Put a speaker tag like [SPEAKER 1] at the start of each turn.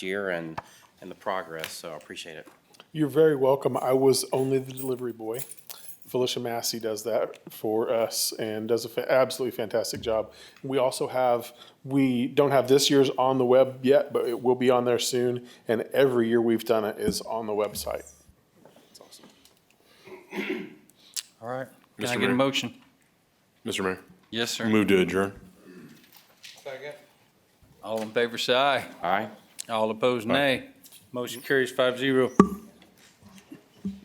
[SPEAKER 1] year and, and the progress, so I appreciate it.
[SPEAKER 2] You're very welcome. I was only the delivery boy. Felicia Massey does that for us and does an absolutely fantastic job. We also have, we don't have this year's on the web yet, but it will be on there soon. And every year we've done it is on the website. It's awesome.
[SPEAKER 3] All right.
[SPEAKER 4] Can I get
[SPEAKER 5] Mr.
[SPEAKER 4] a
[SPEAKER 5] Mayor.
[SPEAKER 4] motion?
[SPEAKER 5] Mr. Mayor,
[SPEAKER 4] Yes, sir.
[SPEAKER 5] move to adjourn.
[SPEAKER 4] All in favor, say aye.
[SPEAKER 1] All right?
[SPEAKER 4] All opposed, nay. Motion carries five zero.